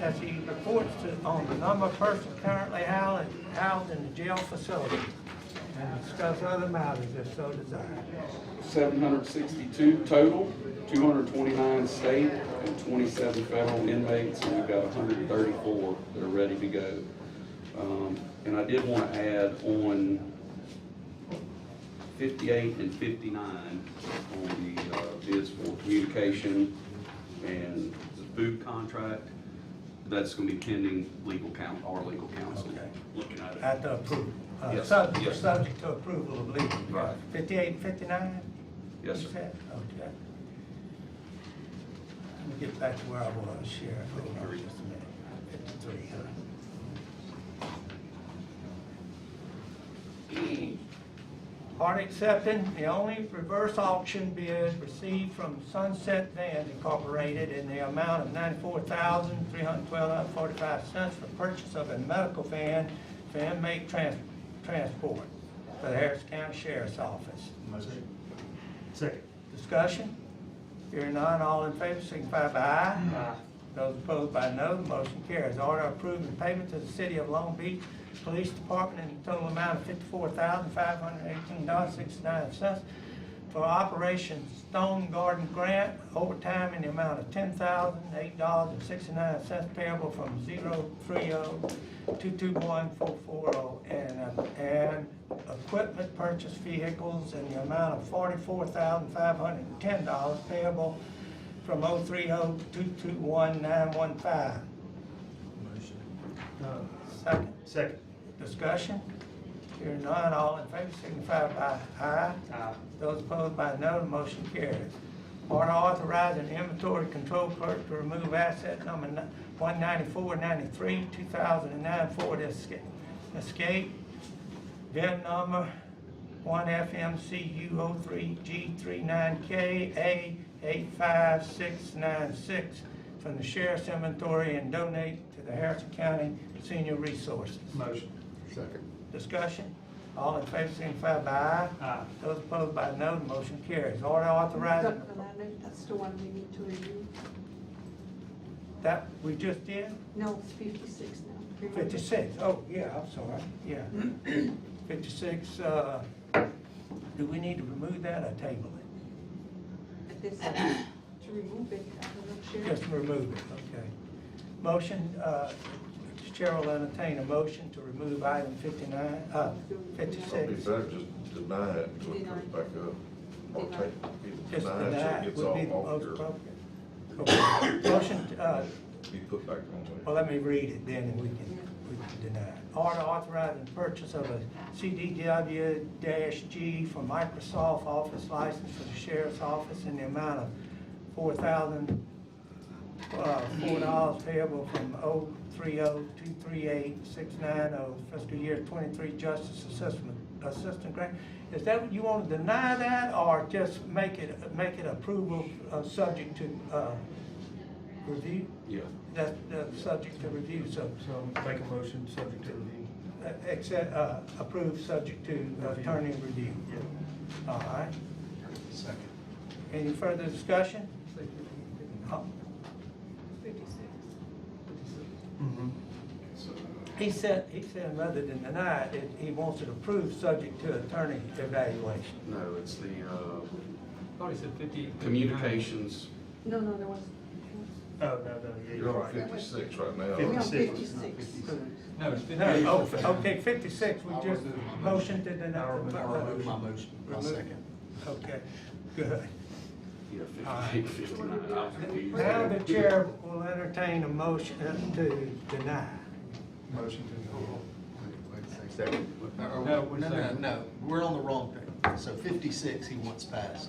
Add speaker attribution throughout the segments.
Speaker 1: that she reports to, on the number of persons currently housed, housed in the jail facility and discuss other matters if so desired.
Speaker 2: 762 total, 229 state and 27 federal inmates, and we've got 134 that are ready to go. Um, And I did want to add on 58 and 59 on the uh, bids for communication and the food contract. That's going to be pending legal counsel, our legal counsel,
Speaker 1: Okay.
Speaker 2: looking at it.
Speaker 1: At the approval, uh,
Speaker 2: Yes,
Speaker 1: subject,
Speaker 2: yes.
Speaker 1: subject to approval of legal.
Speaker 2: Right.
Speaker 1: Fifty-eight, fifty-nine?
Speaker 2: Yes, sir.
Speaker 1: Okay. Let me get back to where I was, Sheriff, hold on just a minute. Fifty-three, huh? Hard accepting the only reverse auction bid received from Sunset Vans Incorporated in the amount of ninety-four thousand, three hundred twelve dollars, forty-five cents for purchase of a medical van for inmate trans- transport for the Harris County Sheriff's Office.
Speaker 3: Motion. Second.
Speaker 1: Discussion? Hearing none, all in favor, signify by aye. Those opposed by no, the motion carries. Order approving payment to the City of Long Beach Police Department in the total amount of fifty-four thousand, five hundred eighteen dollars, sixty-nine cents for Operation Stone Garden Grant overtime in the amount of ten thousand, eight dollars and sixty-nine cents payable from zero three oh two two one four four oh and, uh, and equipment purchase vehicles in the amount of forty-four thousand, five hundred and ten dollars payable from oh three oh two two one nine one five. Uh,
Speaker 3: Motion.
Speaker 1: Second,
Speaker 3: Second.
Speaker 1: discussion? Hearing none, all in favor signify by aye.
Speaker 3: Aye.
Speaker 1: Those opposed by no, the motion carries. Order authorizing inventory control clerk to remove asset number one ninety-four ninety-three, two thousand and nine Ford Esca- Escape, VIN E number one FMCU O three G 39 K A eight five six nine six from the sheriff's inventory and donate to the Harrison County Senior Resources.
Speaker 3: Motion.
Speaker 1: Discussion? All in favor, signify by aye.
Speaker 3: Aye.
Speaker 1: Those opposed by no, the motion carries. Order authorizing,
Speaker 4: Dr. Lavender, that's the one we need to review.
Speaker 1: that we just did,
Speaker 4: No, it's fifty-six now. Remember?
Speaker 1: fifty-six. Oh, yeah, I'm sorry, yeah. Fifty-six, uh, do we need to remove that or table it?
Speaker 4: But this, to remove it, I don't know, Sharon.
Speaker 1: Just remove it, okay. Motion, uh, Chair will entertain a motion to remove item fifty-nine, uh,
Speaker 5: It'd be
Speaker 1: fifty-six.
Speaker 5: better just deny it until it comes back up. Or
Speaker 4: Deny.
Speaker 5: take,
Speaker 1: Just
Speaker 5: deny it till it
Speaker 1: deny
Speaker 5: gets
Speaker 1: would be the
Speaker 5: all
Speaker 1: most
Speaker 5: off
Speaker 1: appropriate. Okay. Motion, uh,
Speaker 5: your, be put back on there.
Speaker 1: Well, let me read it then, and we can, we can deny it. Order authorizing purchase of a CDW G for Microsoft Office license for the sheriff's office in the amount of four thousand, uh, four dollars payable from oh three oh two three eight six nine oh fiscal year twenty-three justice assessment, assistant grant. Is that, you wanna deny that, or just make it, make it approval, uh, subject to, uh, review?
Speaker 2: Yeah,
Speaker 1: That's, that's subject to review, so,
Speaker 3: So make a motion, subject to review.
Speaker 1: uh, except, uh, approved, subject to attorney review. All right,
Speaker 3: Second.
Speaker 1: any further discussion? Uh,
Speaker 3: Mm-hmm.
Speaker 1: He said, he said rather than deny it, it- he wants it approved, subject to attorney evaluation.
Speaker 2: no, it's the, uh,
Speaker 6: Thought he said fifty.
Speaker 2: Communications,
Speaker 4: No, no, there was,
Speaker 3: Oh, no, no, yeah, you're
Speaker 5: You're on
Speaker 3: right.
Speaker 5: fifty-six right now.
Speaker 4: we on
Speaker 3: 56.
Speaker 4: fifty-six.
Speaker 6: No, it's fifty.
Speaker 1: No, oh, okay, fifty-six, we
Speaker 7: I'll
Speaker 1: just
Speaker 7: remove my motion.
Speaker 1: motioned to deny.
Speaker 7: I remove my motion, my
Speaker 1: Remove.
Speaker 7: second.
Speaker 1: Okay, good.
Speaker 2: yeah, fifty-eight, fifty-nine, I was confused.
Speaker 1: Now the chair will entertain a motion to deny.
Speaker 7: Motion to. Second.
Speaker 6: No,
Speaker 7: No,
Speaker 6: we're
Speaker 7: no, no,
Speaker 6: second.
Speaker 7: no, we're on the wrong thing. So fifty-six he wants passed.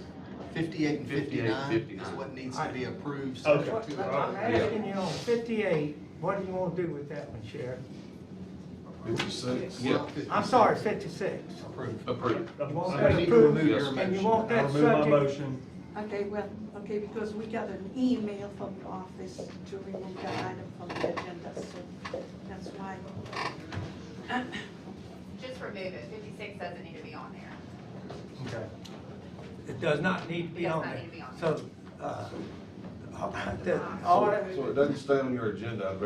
Speaker 7: Fifty-eight and
Speaker 2: 58,
Speaker 7: fifty-nine is
Speaker 2: 59.
Speaker 7: what needs to be approved.
Speaker 3: Okay.
Speaker 7: subject to
Speaker 1: I'm
Speaker 7: it.
Speaker 1: asking you on fifty-eight, what do you want to do with that one, Sheriff?
Speaker 5: Fifty-six.
Speaker 7: We're on
Speaker 2: Yeah.
Speaker 7: 56.
Speaker 1: I'm sorry, fifty-six.
Speaker 7: Approved.
Speaker 2: Approved.
Speaker 1: You want
Speaker 7: So we
Speaker 1: that
Speaker 7: need
Speaker 3: I
Speaker 7: to remove
Speaker 2: Yes.
Speaker 7: your
Speaker 1: And you
Speaker 7: motion.
Speaker 1: want that
Speaker 3: remove my
Speaker 1: subject,
Speaker 3: motion.
Speaker 4: Okay, well, okay, because we got an email from the office to remove that item from the agenda, so that's why.
Speaker 8: Just remove it, fifty-six doesn't need to be on there.
Speaker 3: Okay.
Speaker 1: it does not need to be
Speaker 8: Does
Speaker 1: on
Speaker 8: not
Speaker 1: there.
Speaker 8: need to be on
Speaker 1: So, uh, the order.
Speaker 5: So it doesn't stay on your agenda, I bet